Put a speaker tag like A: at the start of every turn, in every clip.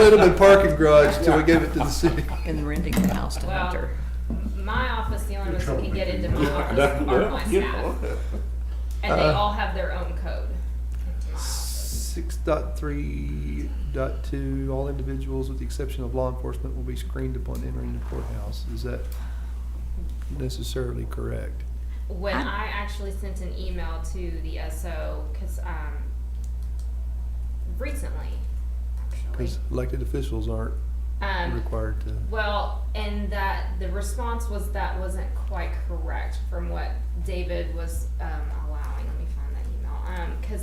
A: Little parking garage till we gave it to the city.
B: and renting the house to
C: Well,
B: Hunter.
C: m- my office, the only ones who can get into my office are my staff,
A: Six
C: and they
A: Uh,
C: all have their own code. into my office.
A: dot three dot two, all individuals with the exception of law enforcement will be screened upon entering the courthouse. Is that necessarily correct?
C: When
B: I-
C: I actually sent an email to the SO, cause, um, recently, actually,
A: Because elected officials aren't
C: um,
A: required to.
C: Well, and that the response was that wasn't quite correct from what David was um, allowing. Let me find that email. Because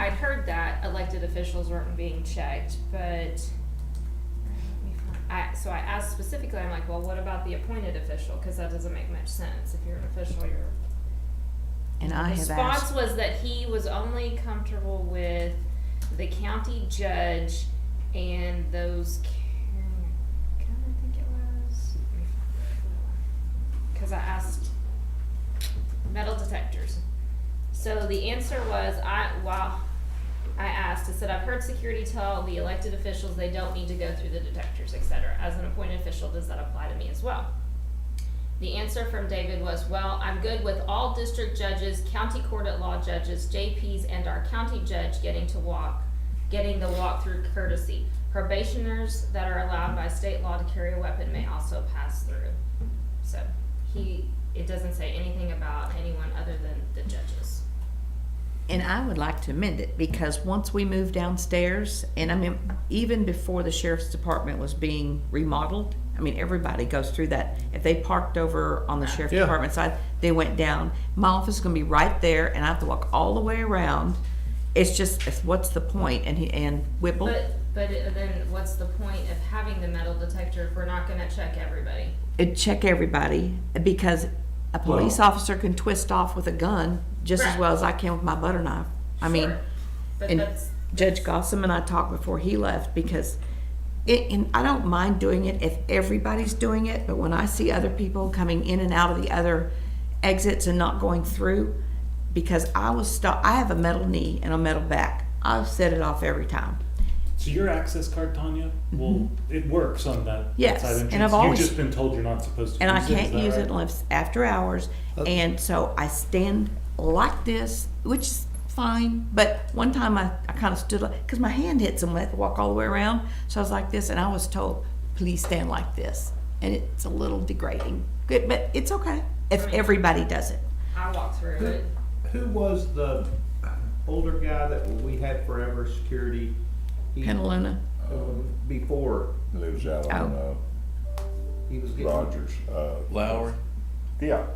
C: I'd heard that elected officials weren't being checked, but let me find- I, so I asked specifically, I'm like, well, what about the appointed official? Because that doesn't make much sense. If you're an official, you're
B: And I have
C: response
B: asked,
C: was that he was only comfortable with the county judge and those. Can I think it was? Because I asked metal detectors. So the answer was I while I asked, I said I've heard security tell the elected officials they don't need to go through the detectors, et cetera. As an appointed official, does that apply to me as well? The answer from David was, well, I'm good with all district judges, county court at law judges, JPs, and our county judge getting to walk, getting the walk through courtesy. Probationers that are allowed by state law to carry a weapon may also pass through. So he, it doesn't say anything about anyone other than the judges.
B: and I would like to amend it, because once we moved downstairs, and I mean, even before the sheriff's department was being remodeled, I mean, everybody goes through that. If they parked over on the sheriff's
A: Yeah.
B: department side, they went down. My office is gonna be right there, and I have to walk all the way around. It's just, it's, what's the point? And he, and Whipple,
C: But, but then what's the point of having the metal detector if we're not gonna check everybody?
B: it uh, check everybody, because a police
D: Well-
B: officer can twist off with a gun just as
C: Right.
B: well as I can with my butter knife. I mean,
C: Sure. But
B: And
C: that's,
B: Judge Gossam and I talked before he left because it, and I don't mind doing it if everybody's doing it, but when I see other people coming in and out of the other exits and not going through, because I was stuck, I have a metal knee and a metal back. I've set it off every time.
D: So your access card, Tanya, well, it works on that
B: Mm-hmm. Yes,
D: side entrance.
B: and I've
D: You've
B: always-
D: just been told you're not supposed to
B: And I
D: use it, is
B: can't
D: that
B: use
D: right?
B: it unless after hours. And so I stand like this, which is fine. But one time I, I kind of stood like, because my hand hit someone, I had to walk all the way around. So I was like this, and I was told, please stand like this. And it's a little degrading. Good, but it's okay if everybody does it.
C: I walked through it.
E: Who was the older guy that we had forever security? He- uh,
B: Penaluna.
E: Before,
F: lives out on uh,
E: he was getting,
F: Rogers. Uh,
G: Lowry?
F: yeah,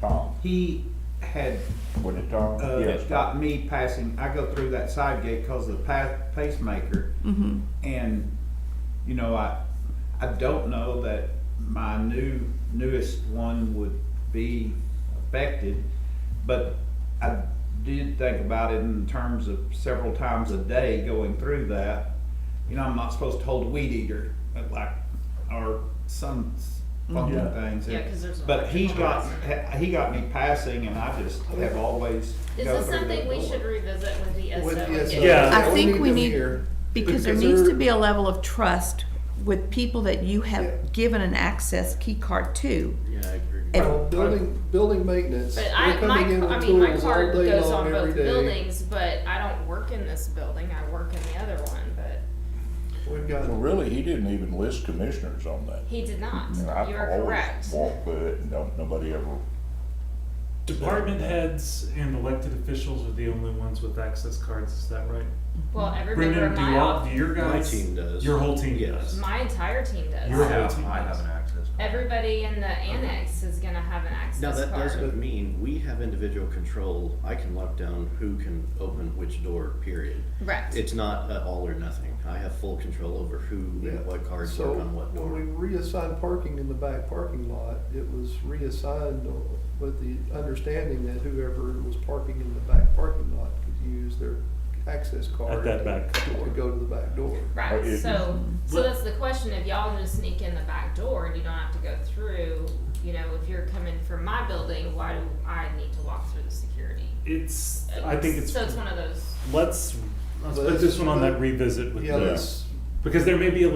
F: Tom.
E: he had,
F: Was it Tom?
E: uh,
F: yes,
E: got me passing, I go through that side gate cause of the pa- pacemaker. And, you know, I, I don't know that my new, newest one would be affected, but I did think about it in terms of several times a day going through that. You know, I'm not supposed to hold a weed eater, but like, or some s- funky
F: Yeah.
E: things.
C: Yeah, 'cause there's an
E: But he
C: electrical
E: got,
C: hazard.
E: he got me passing and I just have always.
C: Is
E: go
C: this
E: through that
C: something we
E: door.
C: should revisit with the SO?
A: With the
C: and
A: SO.
C: get-
D: Yeah.
B: I think we
A: them
B: need-
A: here
B: Because there
A: because
B: needs to
A: they're-
B: be a level of trust with people that you have given an access key card to.
G: Yeah, I agree.
B: And-
A: Well, Building, building maintenance.
C: But
A: they're
C: I, my,
A: coming in with
C: I mean, my
A: tools all
C: card
A: day
C: goes
A: long,
C: on
A: every
C: both
A: day.
C: buildings, but I don't work in this building, I work in the other one, but
A: We've
F: Well,
A: got,
F: really, he didn't even list commissioners on that.
C: he did not,
F: And I
C: you're
F: always
C: correct.
F: Walk with it, and don't, nobody ever,
D: Department heads and elected officials are the only ones with access cards, is that right?
C: Well, everybody in
D: Brendan, do
C: my
D: y'all,
C: office,
D: do your
G: My
D: guys?
G: team does.
D: Your whole team
G: Yes.
D: does?
C: my entire team
D: Your
C: does.
D: whole team does.
G: access.
C: Everybody in the annex is gonna have an
G: Now,
C: access
G: that
C: card.
G: doesn't mean we have individual control. I can lock down who can open which door, period.
C: Right,
G: It's not a all or nothing. I have full control over who and what cards
A: so
G: work on what
A: when we
G: door.
A: reassigned parking in the back parking lot, it was reassigned uh, with the understanding that whoever was parking in the back parking lot could use their access card.
D: At that back
A: To
D: door.
A: go to the back door.
F: Oh,
C: right,
F: it-
C: so, so
D: But-
C: that's the question, if y'all just sneak in the back door and you don't have to go through, you know, if you're coming from my building, why do I need to walk through the security?
D: It's, I think it's,
C: So it's one of those.
D: let's, let's put this one on that revisit with
A: Yeah,
D: the
A: let's
D: Because there may be a